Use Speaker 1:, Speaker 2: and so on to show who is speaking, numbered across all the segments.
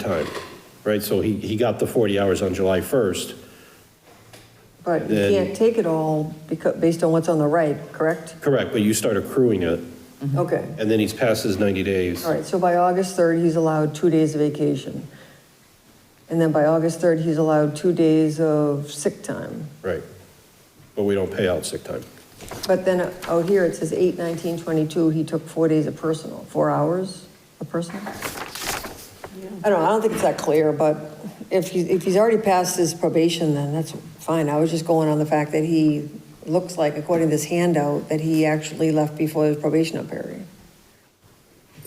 Speaker 1: time, right? So he, he got the 40 hours on July 1st.
Speaker 2: But you
Speaker 1: Then-
Speaker 2: can't take it all because, based on what's on the right, correct?
Speaker 1: Correct, but you start accruing it,
Speaker 2: Okay.
Speaker 1: and then he's past his 90 days.
Speaker 2: All right, so by August 3rd, he's allowed two days of vacation. And then by August 3rd, he's allowed two days of sick time.
Speaker 1: Right. But we don't pay out sick time.
Speaker 2: But then out here, it says 8, 19, 22, he took four days of personal, four hours of personal? I don't, know. I don't think it's that clear, but if he, if he's already passed his probation, then that's fine. I was just going on the fact that he looks like, according to this handout, that he actually left before his probation period.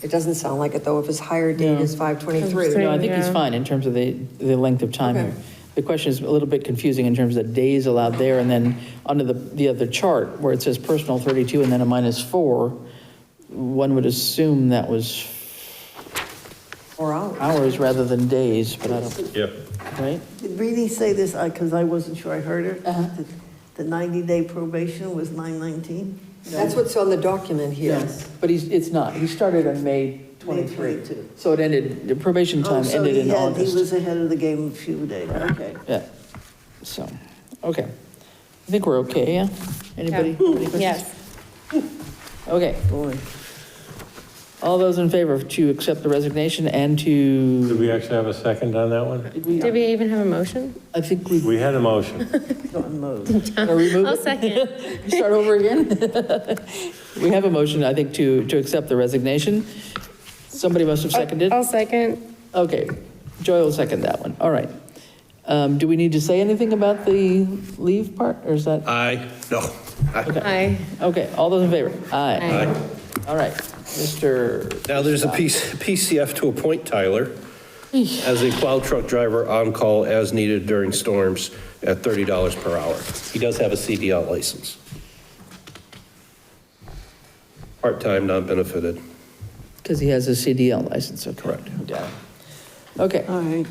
Speaker 2: It doesn't sound like it, though, if his higher date is 523.
Speaker 3: No, I think he's
Speaker 4: Yeah.
Speaker 3: fine in terms of the, the length of time
Speaker 2: Okay.
Speaker 3: here. The question is a little bit confusing in terms of the days allowed there, and then under the, the other chart, where it says personal 32 and then a minus four, one would assume that was
Speaker 2: Four hours.
Speaker 3: hours rather than days, but I don't,
Speaker 1: Yeah.
Speaker 3: right?
Speaker 4: Did Reedy say this, because I wasn't sure I heard her? that The 90-day probation was 919?
Speaker 2: That's what's on the document here.
Speaker 3: But he's, it's not, he started on May 23.
Speaker 4: 22.
Speaker 3: So it ended, the probation
Speaker 4: Oh,
Speaker 3: time
Speaker 4: so
Speaker 3: ended
Speaker 4: he
Speaker 3: in
Speaker 4: had- He
Speaker 3: August.
Speaker 4: was ahead of the game a few days, okay.
Speaker 3: Yeah, so, okay. I think we're okay, yeah? Anybody? have any questions?
Speaker 5: Yes.
Speaker 3: Okay. All those in favor to accept the resignation and to,
Speaker 6: Did we actually have a second on that one?
Speaker 5: Did we even have a motion?
Speaker 3: I think we
Speaker 6: We had a motion.
Speaker 4: Don't move.
Speaker 3: gotta remove
Speaker 5: I'll
Speaker 3: it,
Speaker 5: second.
Speaker 3: start over again. We have a motion, I think, to, to accept the resignation. Somebody must have seconded.
Speaker 4: Oh,
Speaker 5: I'll second.
Speaker 3: Okay, Joy will second that one, all right. Um, Do we need to say anything about the leave part, or is that,
Speaker 1: I, no.
Speaker 5: Aye.
Speaker 3: okay, all those in favor? Aye.
Speaker 5: Aye.
Speaker 3: All right, Mr.
Speaker 1: Now, there's a PC PCF to appoint Tyler as a plow truck driver on call as needed during storms at $30 per hour. He does have a CDL license. Part-time, non-benefited.
Speaker 3: Because he has a CDL license, okay. Correct. Got it. Okay,
Speaker 4: All right.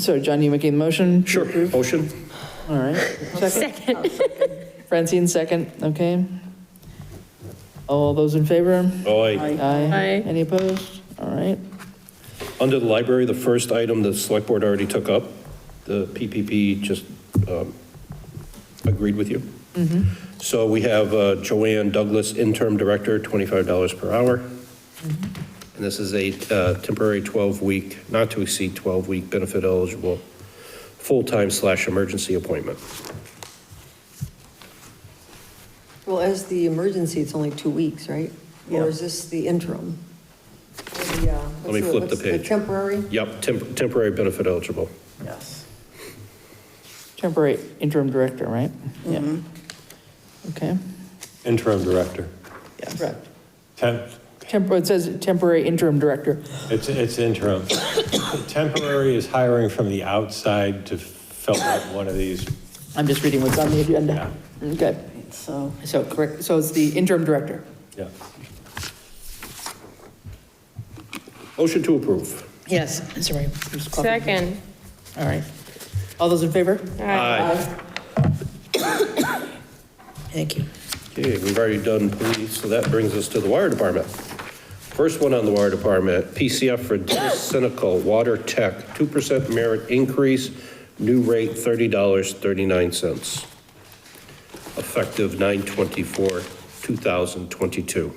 Speaker 3: so John, you making the motion? to
Speaker 1: Sure,
Speaker 3: approve?
Speaker 1: motion?
Speaker 3: All right. Second? Francine, second, okay. All those in favor?
Speaker 1: Aye.
Speaker 3: Aye.
Speaker 5: Aye.
Speaker 3: Any opposed? All right,
Speaker 1: Under the library, the first item the select board already took up, the PPP just um, agreed with you. So we have uh, Joanne Douglas, interim director, $25 per hour. And this is a uh, temporary 12-week, not to exceed 12-week benefit eligible, full-time slash emergency appointment.
Speaker 2: Well, as the emergency, it's only two weeks, right? Or is this the interim? uh, Let
Speaker 1: me flip the page.
Speaker 2: Temporary?
Speaker 1: Yep, temp- temporary benefit eligible.
Speaker 4: Yes.
Speaker 3: temporary interim director, right? Yeah. Okay,
Speaker 6: Interim director.
Speaker 3: correct.
Speaker 6: Temp,
Speaker 3: Temporary, it says temporary interim director.
Speaker 6: it's, it's interim. Temporary is hiring from the outside to fill out one of these.
Speaker 3: I'm just reading what's on the agenda. Okay,
Speaker 4: So,
Speaker 3: so correct, so it's the interim director.
Speaker 6: Yeah.
Speaker 1: Motion to approve.
Speaker 3: Yes, sorry. just coughing.
Speaker 5: Second.
Speaker 3: All right. All those in favor? Thank you.
Speaker 1: Okay, we've already done police, so that brings us to the wire department. First one on the wire department, PCF for Dennis Senical, Water Tech, 2% merit increase, new rate $30.39, effective 9/24/2022.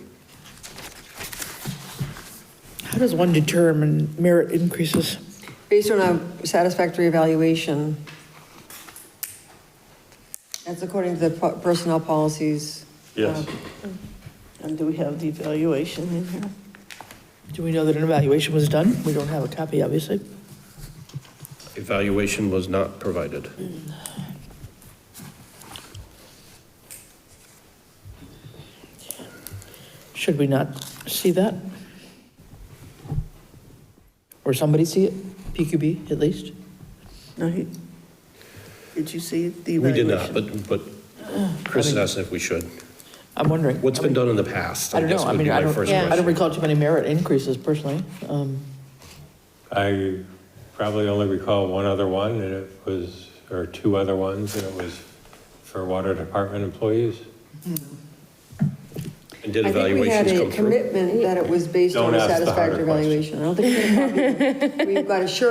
Speaker 3: How does one determine merit increases?
Speaker 2: Based on a satisfactory evaluation. That's according to the po- personnel policies.
Speaker 6: Yes.
Speaker 4: and do we have the evaluation in here?
Speaker 3: Do we know that an evaluation was done? We don't have a copy, obviously.
Speaker 1: Evaluation was not provided.
Speaker 3: Should we not see that? Or somebody see it? PQB, at least?
Speaker 4: No, he, did you see the
Speaker 1: We did
Speaker 4: evaluation?
Speaker 1: not, but, but Chris asked if we should.
Speaker 3: I'm wondering.
Speaker 1: What's been done in the past?
Speaker 3: I don't know.
Speaker 1: guess
Speaker 3: I
Speaker 1: would be
Speaker 3: mean, I
Speaker 1: my
Speaker 3: don't,
Speaker 1: first
Speaker 3: I don't
Speaker 1: question.
Speaker 3: recall too many merit increases personally. Um,
Speaker 6: I probably only recall one other one, and it was, or two other ones, and it was for water department employees.
Speaker 1: And did
Speaker 2: I think we had
Speaker 1: evaluations
Speaker 2: a
Speaker 1: come through?
Speaker 2: commitment that it was based on
Speaker 6: Don't
Speaker 2: a
Speaker 6: ask the harder
Speaker 2: satisfactory
Speaker 6: questions.
Speaker 2: evaluation. I don't think we have a copy. we've got a sure